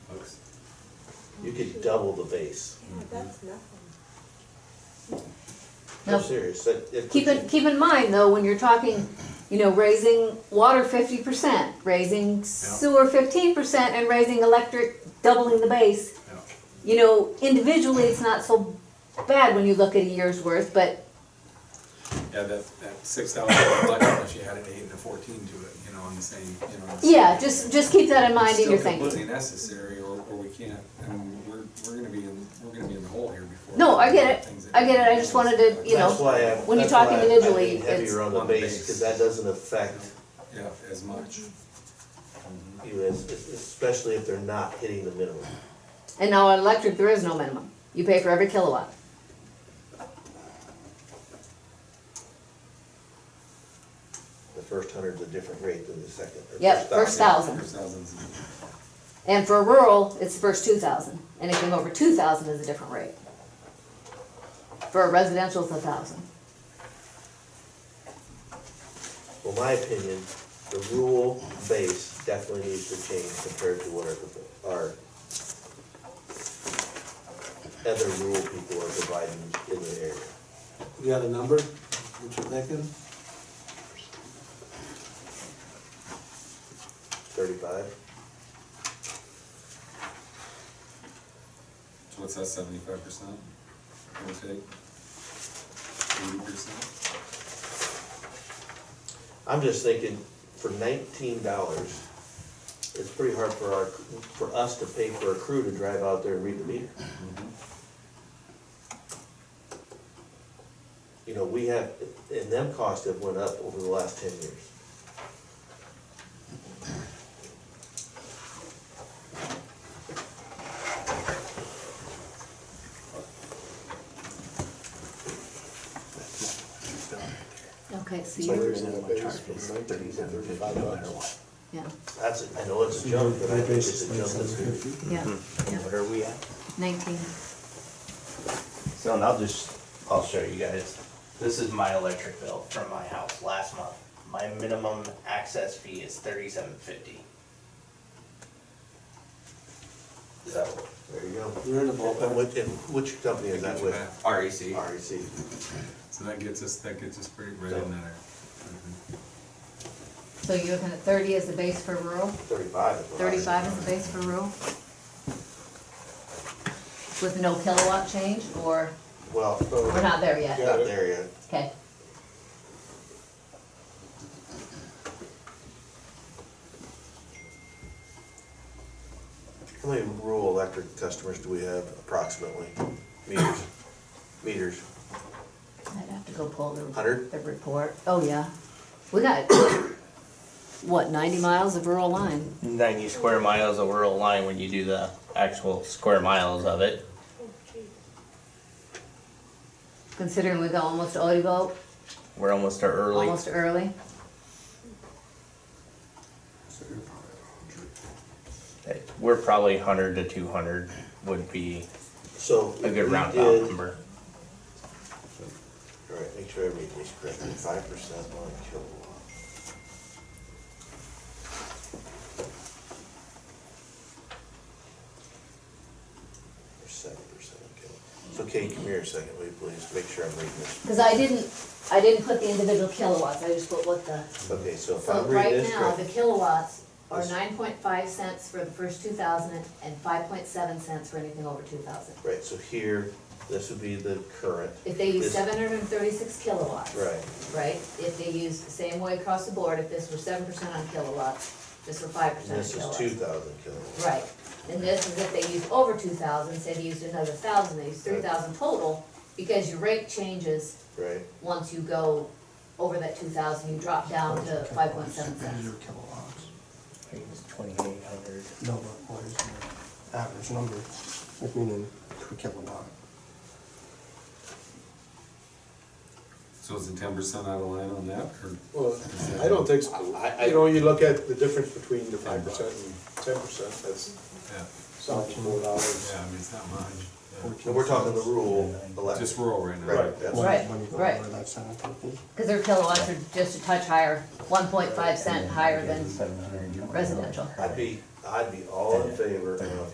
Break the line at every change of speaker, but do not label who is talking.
you could double the base.
Yeah, that's nothing.
I'm
Now,
serious, that, it.
keep in, keep in mind though, when you're talking, you know, raising water fifty percent, raising sewer fifteen percent, and raising electric, doubling the base.
Yeah.
You know, individually, it's not so bad when you look at a year's worth, but
Yeah, that, that six thousand election, if you had an eight and a fourteen to it, you know, on the same, you know. it's-
yeah, just, just keep that in mind in your
It's still
thinking.
completely necessary, or, or we can't, I mean, we're, we're gonna be in, we're gonna be in the hole here before.
No, I get it.
things that-
I get it. I just wanted to, you know,
That's why I-
when you
that's
talk
why I- I
individually,
lean
it's-
Heavier on the
On the
base,
base.
cause that doesn't affect
Yeah, as much.
you as, especially if they're not hitting the minimum.
And now on electric, there is no minimum. You pay for every kilowatt.
The first hundred's a different rate than the second. or
Yep, first
thousand.
thousand.
First thousand's-
And for rural, it's the first two thousand, and anything over two thousand is a different rate. For a residential, it's a thousand.
Well, my opinion, the rural base definitely needs to change compared to what our, our other rural people are providing in the area.
You got a number, what you're thinking?
Thirty-five?
So What's that, seventy-five percent? Give or take? Eighty percent?
I'm just thinking, for nineteen dollars, it's pretty hard for our, for us to pay for a crew to drive out there and read the meter. You know, we have, and them costs have went up over the last ten years.
Okay, so
So
you,
there's no base from 19 to 35 bucks.
yeah,
That's, a- I know it's a jump, but I think it's a jump that's good.
yeah, yeah,
What are we at?
nineteen.
So and I'll just, I'll show you guys. This is my electric bill from my house last month. My minimum access fee is thirty-seven fifty. So,
There you go.
You're in the
And
ballpark.
which, and which company is that with? E
REC,
REC.
So that gets us, that gets us pretty right in there.
So you're looking at thirty as the base for rural,
Thirty-five is what I was-
thirty-five as the base for rural? With no kilowatt change, or
Well,
we're
not
not there yet?
there yet.
Okay,
How many rural electric customers do we have approximately? Meters, meters,
I'd have to go pull the.
Hundred?
The report, oh yeah. We got, what, ninety miles of rural line?
ninety square miles of rural line when you do the actual square miles of it.
Considering we go almost to Odebo,
We're almost to early.
almost early.
We're probably hundred to two hundred would be
so.
a good
we
roundabout
did-
number.
All right, make sure I read this correctly, five percent on kilowatt. Or seven percent on kilowatt. So Kate, come here a second, will you please, make sure I'm reading this.
Cause I didn't, I didn't put the individual kilowatts, I just put what the,
Okay, so if
so
I'm reading
right
this
now, the
correctly.
kilowatts are
Yes.
nine point five cents for the first two thousand and five point seven cents for anything over two thousand.
Right, so here, this would be the current.
If they use
This-
seven hundred and thirty-six kilowatts.
Right.
Right, if they use the same way across the board, if this were seven percent on kilowatts, this were five
And
percent on
this is
kilowatts.
two thousand kilowatts.
Right, and this is if they use over two thousand, say they used another thousand, they used three thousand total, because your rate changes
Right,
once you go over that two thousand, you drop down to Um, five point seven cents.
Your kilowatts,
I think it's twenty-eight hundred.
no, but what is the average number, like meaning per kilowatt?
So is it ten percent out of line on that, or?
Well, I don't think, so. you know, you look at the difference between the five percent and ten percent, that's
Yeah,
Something four dollars.
yeah, I mean, it's not much. Yeah.
and we're talking the rural
Just
electric.
rural right now.
Right, that's-
Right,
When you go
right.
over that seven fifty.
Cause their kilowatts are just a touch higher, one point five cent higher than residential.
I'd be, I'd be all in favor of